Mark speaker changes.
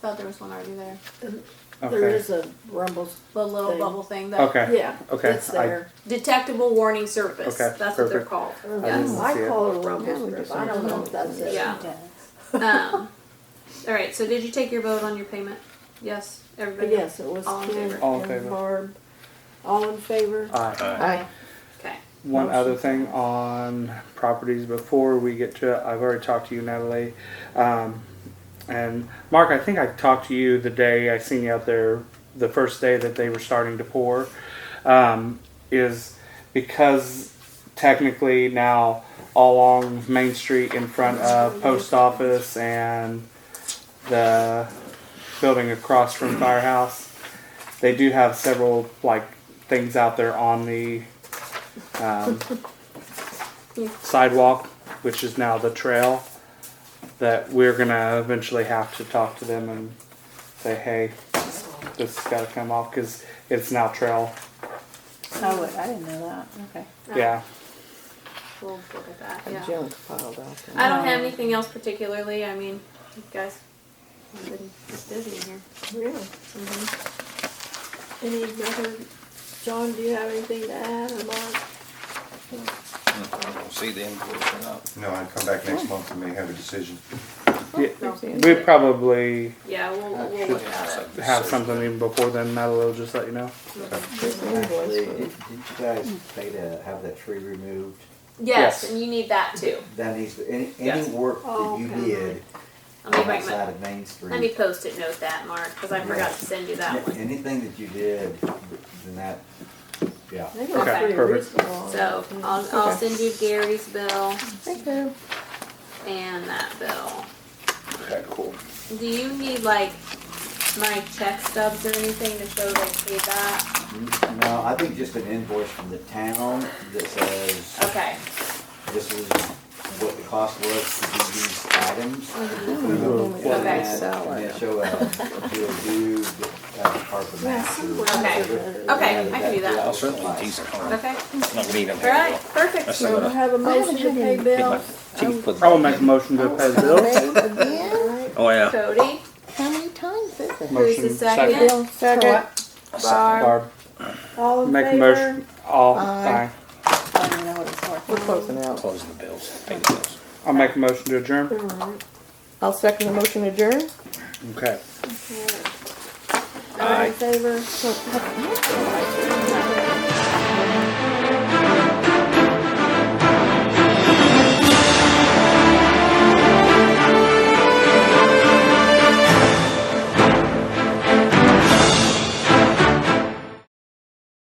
Speaker 1: Thought there was one already there.
Speaker 2: There
Speaker 3: Okay.
Speaker 2: is a rumbles.
Speaker 1: The little
Speaker 2: Thing.
Speaker 1: bubble thing. That
Speaker 3: Okay.
Speaker 2: Yeah,
Speaker 3: Okay,
Speaker 2: it's
Speaker 3: I-
Speaker 2: there.
Speaker 1: Detectable warning service.
Speaker 3: Okay,
Speaker 1: That's what they're
Speaker 3: perfect.
Speaker 1: called.
Speaker 2: Oh,
Speaker 3: didn't
Speaker 2: I
Speaker 3: see it.
Speaker 2: call it a
Speaker 4: Yeah, we
Speaker 2: rumble strip.
Speaker 4: just-
Speaker 2: I don't know if that's it.
Speaker 1: Yeah. Um, all right. So did you take your vote on your payment? Yes,
Speaker 2: But
Speaker 1: everybody.
Speaker 2: yes, it was
Speaker 1: All in
Speaker 2: Ken
Speaker 1: favor.
Speaker 3: All in
Speaker 2: and
Speaker 3: favor.
Speaker 2: Barb. All in favor?
Speaker 3: Aye.
Speaker 4: Aye.
Speaker 1: Okay.
Speaker 3: One other thing on properties before we get to it, I've already talked to you, Natalie. Um, and Mark, I think I talked to you the day I seen you out there, the first day that they were starting to pour, um, is because technically now all along Main Street in front of post office and the building across from firehouse, they do have several like things out there on the um, sidewalk, which is now the trail, that we're gonna eventually have to talk to them and say, hey, this has gotta come off, cause it's now trail,
Speaker 4: Oh, wait, I didn't know that. Okay.
Speaker 1: Uh,
Speaker 3: yeah.
Speaker 1: We'll look at that.
Speaker 2: A
Speaker 1: Yeah.
Speaker 2: junk piled out there.
Speaker 1: I don't have anything else particularly. I mean, you guys, I've been just busy in here. Mm-hmm.
Speaker 2: Really? Any other, John, do you have anything to add or Mark?
Speaker 5: I don't see the invoice or not.
Speaker 6: No, I'd come back next month and may have a decision.
Speaker 3: Yeah,
Speaker 1: No.
Speaker 3: We probably
Speaker 1: Yeah, we'll, we'll
Speaker 3: should
Speaker 1: look at it.
Speaker 3: have something even before then, Natalie will just let you know.
Speaker 2: This
Speaker 7: Actually, did
Speaker 2: invoice.
Speaker 7: did you guys pay to have that tree removed?
Speaker 1: Yes,
Speaker 3: Yes.
Speaker 1: and you need that too.
Speaker 7: That needs, any,
Speaker 1: Yes.
Speaker 7: any work that you
Speaker 2: Oh, Okay.
Speaker 7: did
Speaker 1: Let me write my,
Speaker 7: outside of Main
Speaker 1: let me
Speaker 7: Street,
Speaker 1: post it note that, Mark, because I forgot to send you that one.
Speaker 7: anything that you did, then that, yeah.
Speaker 2: They look
Speaker 1: Okay,
Speaker 2: pretty
Speaker 3: perfect.
Speaker 2: reasonable.
Speaker 1: So I'll, I'll send you Gary's bill
Speaker 2: Thank you.
Speaker 1: and that bill.
Speaker 5: Okay, cool.
Speaker 1: Do you need like my check stubs or anything to show they paid that?
Speaker 7: No, I think just an invoice from the town that says,
Speaker 1: Okay,
Speaker 7: this is what the cost was to do these items.
Speaker 2: Mm-hmm.
Speaker 4: Well,
Speaker 7: And
Speaker 1: Okay.
Speaker 7: then- and then show uh, a, do a due, uh, part of the
Speaker 2: uh, Yeah,
Speaker 7: master.
Speaker 2: somewhere.
Speaker 1: Okay. okay, I can do
Speaker 5: I'll
Speaker 1: that.
Speaker 5: certainly tease it. I'm
Speaker 1: Okay,
Speaker 5: not gonna eat them.
Speaker 1: all right, perfect.
Speaker 5: That's
Speaker 2: Do we
Speaker 5: not
Speaker 2: have a motion to pay
Speaker 5: My
Speaker 2: bills?
Speaker 5: teeth put.
Speaker 3: I will make a motion to pay the bill.
Speaker 4: Again?
Speaker 5: Oh, yeah.
Speaker 1: Cody,
Speaker 4: How many times is it?
Speaker 1: who's the
Speaker 3: Motion,
Speaker 1: second?
Speaker 4: Second.
Speaker 1: Barb.
Speaker 3: Barb,
Speaker 2: All in
Speaker 3: make a
Speaker 2: favor?
Speaker 3: motion, all,
Speaker 4: Aye.
Speaker 3: aye.
Speaker 4: I don't even know what it's for. We're closing out.
Speaker 5: Close the bills, pay the bills.
Speaker 3: I'll make a motion to adjourn.
Speaker 2: Alright,
Speaker 4: I'll second the motion adjourn.
Speaker 3: Okay.
Speaker 2: alright. All in favor?
Speaker 1: Aye.